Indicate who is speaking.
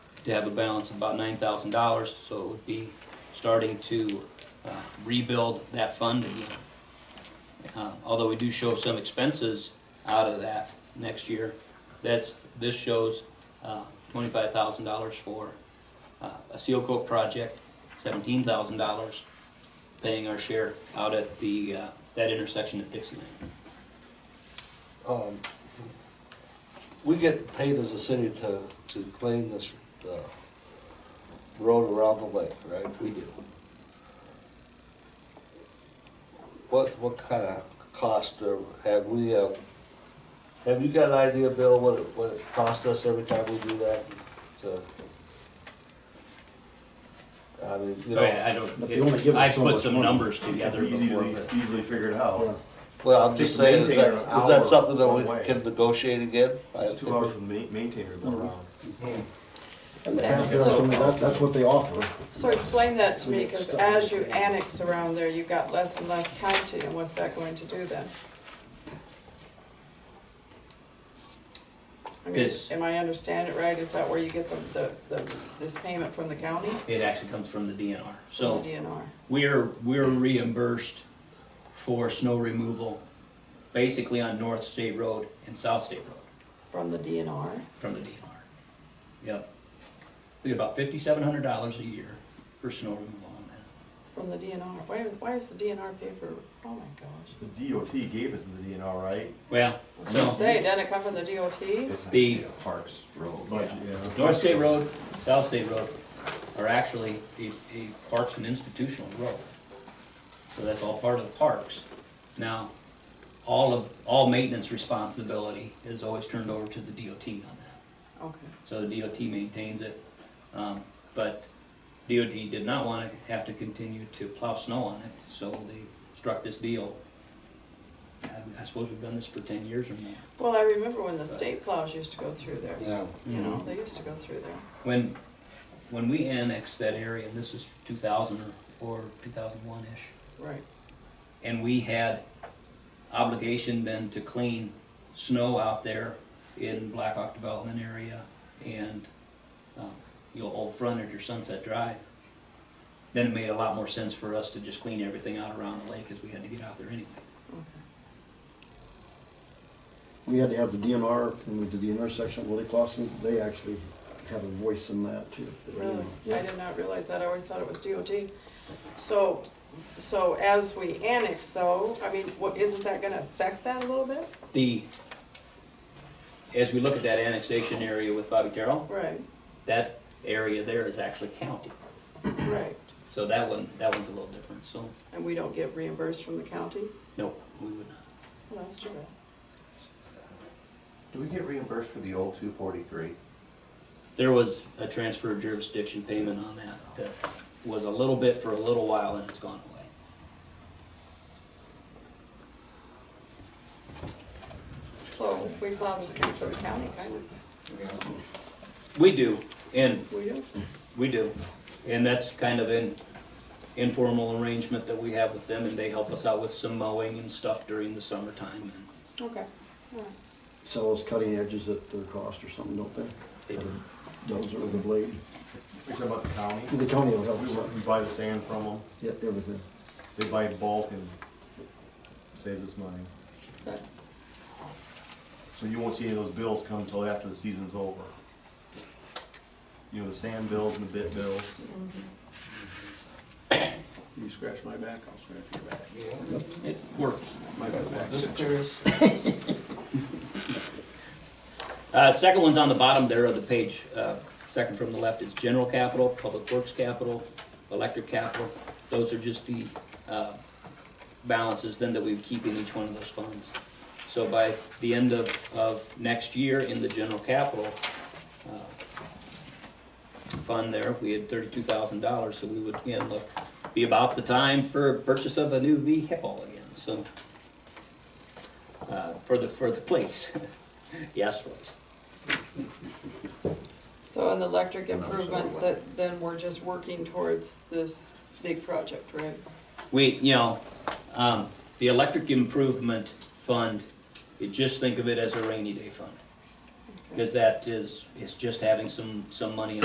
Speaker 1: to have a balance of about nine thousand dollars, so it would be starting to uh, rebuild that fund again. Uh, Although we do show some expenses out of that next year, that's, this shows uh, twenty-five thousand dollars for uh, a seal coat project, seventeen thousand dollars, paying our share out at the, uh, that intersection at Dixie Lane.
Speaker 2: Um, We get paid as a city to, to clean this, uh, road around the lake, right?
Speaker 1: We do.
Speaker 2: What, what kind of cost are- have we, uh, have you got an idea, Bill, what it, what it costs us every time we do that? So, I mean, you
Speaker 3: Oh,
Speaker 1: Sorry,
Speaker 2: know,
Speaker 1: Oh, I
Speaker 4: But they only give
Speaker 1: don't,
Speaker 4: us
Speaker 1: I
Speaker 4: so
Speaker 1: put
Speaker 4: much
Speaker 1: some
Speaker 4: money.
Speaker 1: numbers together before,
Speaker 3: Easily,
Speaker 1: but
Speaker 3: easily figured out.
Speaker 2: well, I'm just
Speaker 3: Just
Speaker 2: saying, is that,
Speaker 3: maintain
Speaker 2: is
Speaker 3: an
Speaker 2: that
Speaker 3: hour
Speaker 2: something that
Speaker 3: one
Speaker 2: we
Speaker 3: way.
Speaker 2: can negotiate again? I
Speaker 3: It's two
Speaker 2: think we-
Speaker 3: hours from the ma- maintainer going around.
Speaker 4: In the past, that's, I mean, that- that's what they offer.
Speaker 5: So explain that to me, because as you annex around there, you've got less and less county, and what's that going to do then? I mean,
Speaker 1: This-
Speaker 5: am I understand it right, is that where you get the, the, the, this payment from the county,
Speaker 1: it actually comes from the DNR.
Speaker 5: from
Speaker 1: So
Speaker 5: the DNR?
Speaker 1: we're, we're reimbursed for snow removal, basically on North State Road and South State Road.
Speaker 5: From the DNR?
Speaker 1: from the DNR. Yep. We get about fifty-seven hundred dollars a year for snow removal on that.
Speaker 5: From the DNR, why, why does the DNR pay for, oh my gosh.
Speaker 3: The DOT gave us the DNR, right?
Speaker 1: Well,
Speaker 5: Just
Speaker 1: so,
Speaker 5: say, doesn't it come from the DOT?
Speaker 6: It's
Speaker 1: The-
Speaker 6: like a Parks Road.
Speaker 3: Budget, yeah.
Speaker 1: North State Road, South State Road are actually a, a parks and institutional road. So that's all part of parks. Now, all of, all maintenance responsibility is always turned over to the DOT on that.
Speaker 5: Okay,
Speaker 1: so the DOT maintains it. Um, But DOT did not want to have to continue to plow snow on it, so they struck this deal. I- I suppose we've done this for ten years or more.
Speaker 5: well, I remember when the state plows used to go through there,
Speaker 4: Yeah.
Speaker 5: you
Speaker 6: Mm-hmm.
Speaker 5: know,
Speaker 1: Mm-hmm.
Speaker 5: they used to go through there.
Speaker 1: When, when we annexed that area, and this is two thousand or two thousand one-ish,
Speaker 5: Right,
Speaker 1: and we had obligation then to clean snow out there in Black Hawk Development area and, um, you know, Old Frontage or Sunset Drive, then it made a lot more sense for us to just clean everything out around the lake, because we had to get out there anyway.
Speaker 4: We had to have the DNR, when we did the intersection, Willie Clausen's, they actually have a voice in that too.
Speaker 5: really, I
Speaker 4: Yeah.
Speaker 5: did not realize that, I always thought it was DOT. So, so as we annex though, I mean, what, isn't that gonna affect that a little bit?
Speaker 1: The, as we look at that annexation area with Bobby Terrell,
Speaker 5: Right,
Speaker 1: that area there is actually county,
Speaker 5: right,
Speaker 1: so that one, that one's a little different, so,
Speaker 5: and we don't get reimbursed from the county,
Speaker 1: no, we would not.
Speaker 5: well, that's too bad.
Speaker 6: Do we get reimbursed for the old two forty-three?
Speaker 1: There was a transfer of jurisdiction payment on that that was a little bit for a little while and it's gone away.
Speaker 5: So, we plow the street for the county, kind of,
Speaker 1: We do, and
Speaker 5: we do,
Speaker 1: we do, and that's kind of an informal arrangement that we have with them and they help us out with some mowing and stuff during the summertime and
Speaker 5: okay, all right.
Speaker 4: Sell those cutting edges at their cost or something, don't they?
Speaker 1: They do.
Speaker 4: Or Dozer with a blade.
Speaker 3: We're talking about the county.
Speaker 4: The county will help
Speaker 3: We
Speaker 4: us out.
Speaker 3: work- We buy the sand from them.
Speaker 4: Yeah, everything.
Speaker 3: They buy it bulk and saves us money.
Speaker 5: But
Speaker 3: So you won't see any of those bills come until after the season's over. You know, the sand bills and the bit bills.
Speaker 7: You scratch my back, I'll scratch your back.
Speaker 1: it works.
Speaker 7: My back's itching.
Speaker 1: Uh, second one's on the bottom there of the page, uh, second from the left is general capital, public works capital, electric capital. Those are just the, uh, balances then that we would keep in each one of those funds. So by the end of, of next year in the general capital, uh, fund there, we had thirty-two thousand dollars, so we would again look, be about the time for purchase of a new vehicle again, so. Uh, for the, for the place, yes, please.
Speaker 5: So in the electric
Speaker 6: Another solar
Speaker 5: improvement,
Speaker 6: one.
Speaker 5: that, then we're just working towards this big project, right?
Speaker 1: We, you know, um, the electric improvement fund, you just think of it as a rainy day fund. Cause that is, is just having some, some money